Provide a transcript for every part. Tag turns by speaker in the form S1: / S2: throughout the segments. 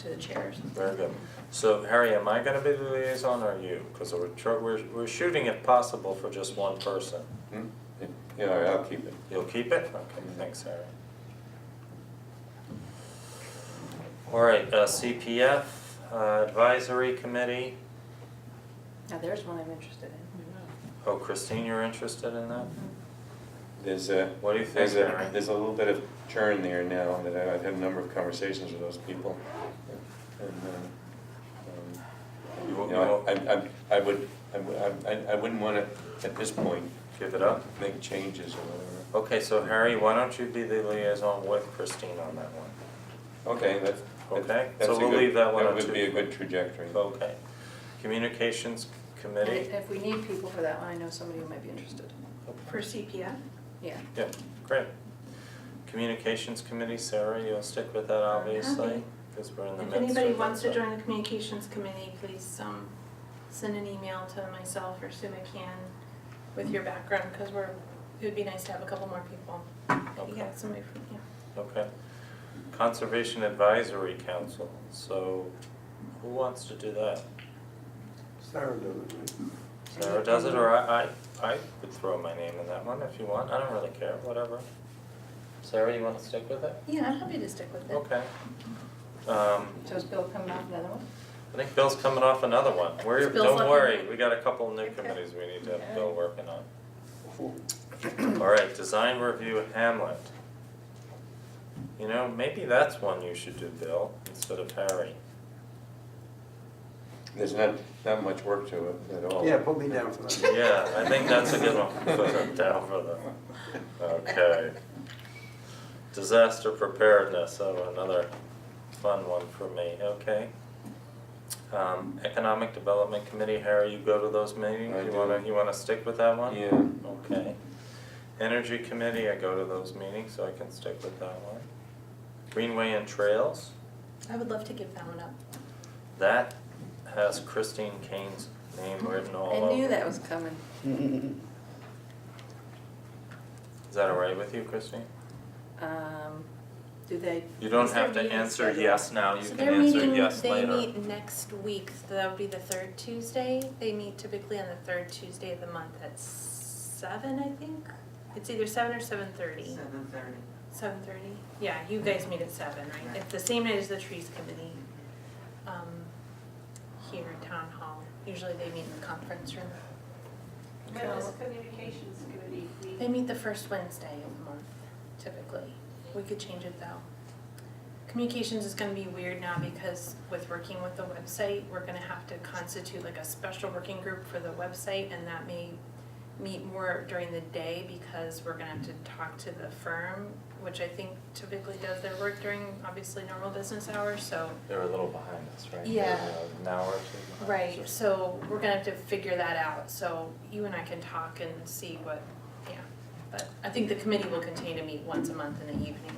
S1: to the chairs.
S2: Very good. So Harry, am I gonna be the liaison or you? Because we're, tr- we're, we're shooting if possible for just one person.
S3: Hmm? Yeah, all right, I'll keep it.
S2: You'll keep it? Okay, thanks Harry. All right, uh, CPF, uh, Advisory Committee.
S1: Now, there's one I'm interested in.
S2: Oh, Christine, you're interested in that?
S3: There's a.
S2: What do you think,
S3: there's a-
S2: Mary?
S3: There's a little bit of churn there now, that I- I've had a number of conversations with those people. And, um, um,
S2: You
S3: You
S2: won't, you
S3: know,
S2: won't
S3: I, I, I would, I, would- I, I wouldn't wanna, at this point,
S2: give it up?
S3: make changes or whatever.
S2: Okay, so Harry, why don't you be the liaison with Christine on that one?
S3: Okay, that's,
S2: Okay,
S3: that- that's
S2: so
S3: a
S2: we'll
S3: good-
S2: leave that one up
S3: That
S2: to-
S3: would be a good trajectory.
S2: Okay. Communications
S1: And
S2: Committee?
S1: if we need people for that one, I know somebody who might be interested.
S4: For CPF?
S1: Yeah.
S2: Yeah, great. Communications Committee, Sarah, you'll stick with that obviously,
S4: Okay.
S2: because we're in the
S4: If
S2: midst of it.
S4: anybody wants to
S2: so-
S4: join the communications committee, please, um, send an email to myself or Sue McCann with your background, because we're, it would be nice to have a couple more people. You
S2: Okay.
S4: got somebody from, yeah.
S2: Okay. Conservation Advisory Council, so who wants to do that?
S5: Sarah does it, right?
S2: Sarah does it, or I, I, I would throw my name in that one if you want, I don't really care, whatever. Sarah, you wanna stick with it?
S4: Yeah, I'm happy to stick with it.
S2: Okay. Um,
S1: So is Bill coming off another one?
S2: I think Bill's coming off another one, we're,
S4: Bill's
S2: don't
S4: on-
S2: worry, we got a couple new
S4: Okay.
S2: committees we need to have
S4: Okay.
S2: Bill working on. Oh. Alright, design review Hamlet. You know, maybe that's one you should do, Bill, instead of Harry.
S3: There's not, not much work to it at all.
S5: Yeah, put me down for that.
S2: Yeah, I think that's a good one, put them down for the, okay. Disaster preparedness, oh, another fun one for me, okay. Um, Economic Development Committee, Harry, you go to those meetings,
S3: I
S2: you
S3: do.
S2: wanna, you wanna stick with that one?
S3: Yeah.
S2: Okay. Energy Committee, I go to those meetings, so I can stick with that one. Greenway and Trails,
S4: I would love to give that one up.
S2: that has Christine Kane's name written all over
S1: I knew
S2: it.
S1: that was coming.
S2: Is that all right with you, Christine?
S1: Um, do they?
S2: You don't
S4: Is their
S2: have to
S4: meeting
S2: answer
S4: scheduled?
S2: yes now, you
S4: So
S2: can
S4: they're
S2: answer
S4: meeting,
S2: yes
S4: they
S2: later.
S4: meet next week, so that would be the third Tuesday. They meet typically on the third Tuesday of the month at seven, I think. It's either seven or seven thirty.
S6: Seven thirty.
S4: Seven thirty? Yeah, you guys meet at seven, right? It's the same night as the trees committee, um, here at town hall. Usually they meet in the conference room.
S7: When does communications committee
S4: They
S7: meet?
S4: meet the first Wednesday of the month typically. We could change it though. Communications is gonna be weird now because with working with the website, we're gonna have to constitute like a special working group for the website and that may meet more during the day because we're gonna have to talk to the firm, which I think typically does their work during obviously normal business hours, so
S2: They're a little behind us, right? They're,
S4: Yeah.
S2: uh, An hour or two behind us
S4: Right,
S2: or-
S4: so we're gonna have to figure that out, so you and I can talk and see what, yeah. But I think the committee will continue to meet once a month in the evening.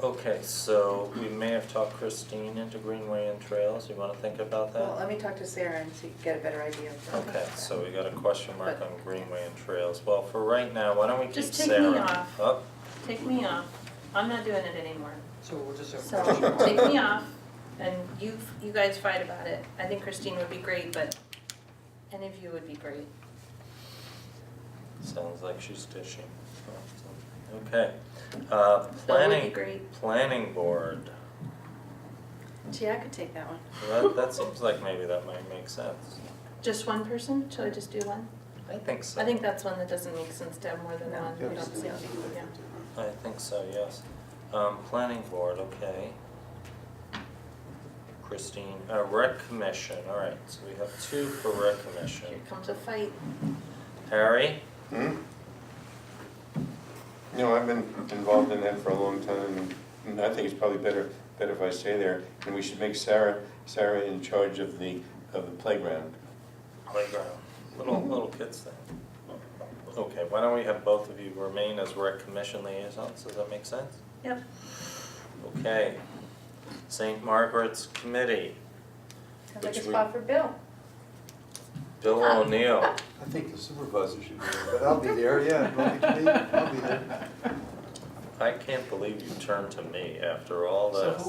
S2: Okay, so we may have talked Christine into Greenway and Trails, you wanna think about that?
S1: Well, let me talk to Sarah and see, get a better idea of. what-
S2: Okay, so we got a question mark
S1: But-
S2: on Greenway and Trails, well, for right now, why don't we keep
S4: Just
S2: Sarah? Oh,
S4: take me off.
S2: Up,
S4: Take me off, I'm not doing it anymore.
S6: So we'll just have.
S4: So, take me off, and you, you guys fight about it. I think Christine would be great, but any of you would be great.
S2: sounds like she's dishing, okay, uh,
S4: That would be
S2: planning,
S4: great.
S2: planning board,
S1: Gee, I could take that one.
S2: that, that seems like maybe that might make sense,
S4: Just one person, shall I just do one?
S2: I think so.
S4: I think that's one that doesn't make sense to have more than
S1: No,
S4: one,
S1: we
S4: we don't
S1: just
S4: see,
S1: don't do
S4: yeah.
S2: I think so, yes. Um, planning board, okay. Christine, uh, rec commission, all right, so we have two for rec commission.
S4: Here comes a fight.
S2: Harry,
S3: Hmm? You know, I've been involved in that for a long time, and I think it's probably better, better if I stay there. And we should make Sarah, Sarah in charge of the, of the playground.
S2: playground, little,
S6: Mm-hmm.
S2: little kids thing. Okay, why don't we have both of you remain as rec commission liaisons, does that make sense?
S4: Yep.
S2: Okay. Saint Margaret's Committee,
S1: Sounds like a
S2: Which we-
S1: spot for Bill.
S2: Bill
S6: Ah.
S2: O'Neill,
S5: I think the supervisor should be there, but I'll be there, yeah, don't be, I'll be there.
S2: I can't believe you turned to me after all this.
S6: So who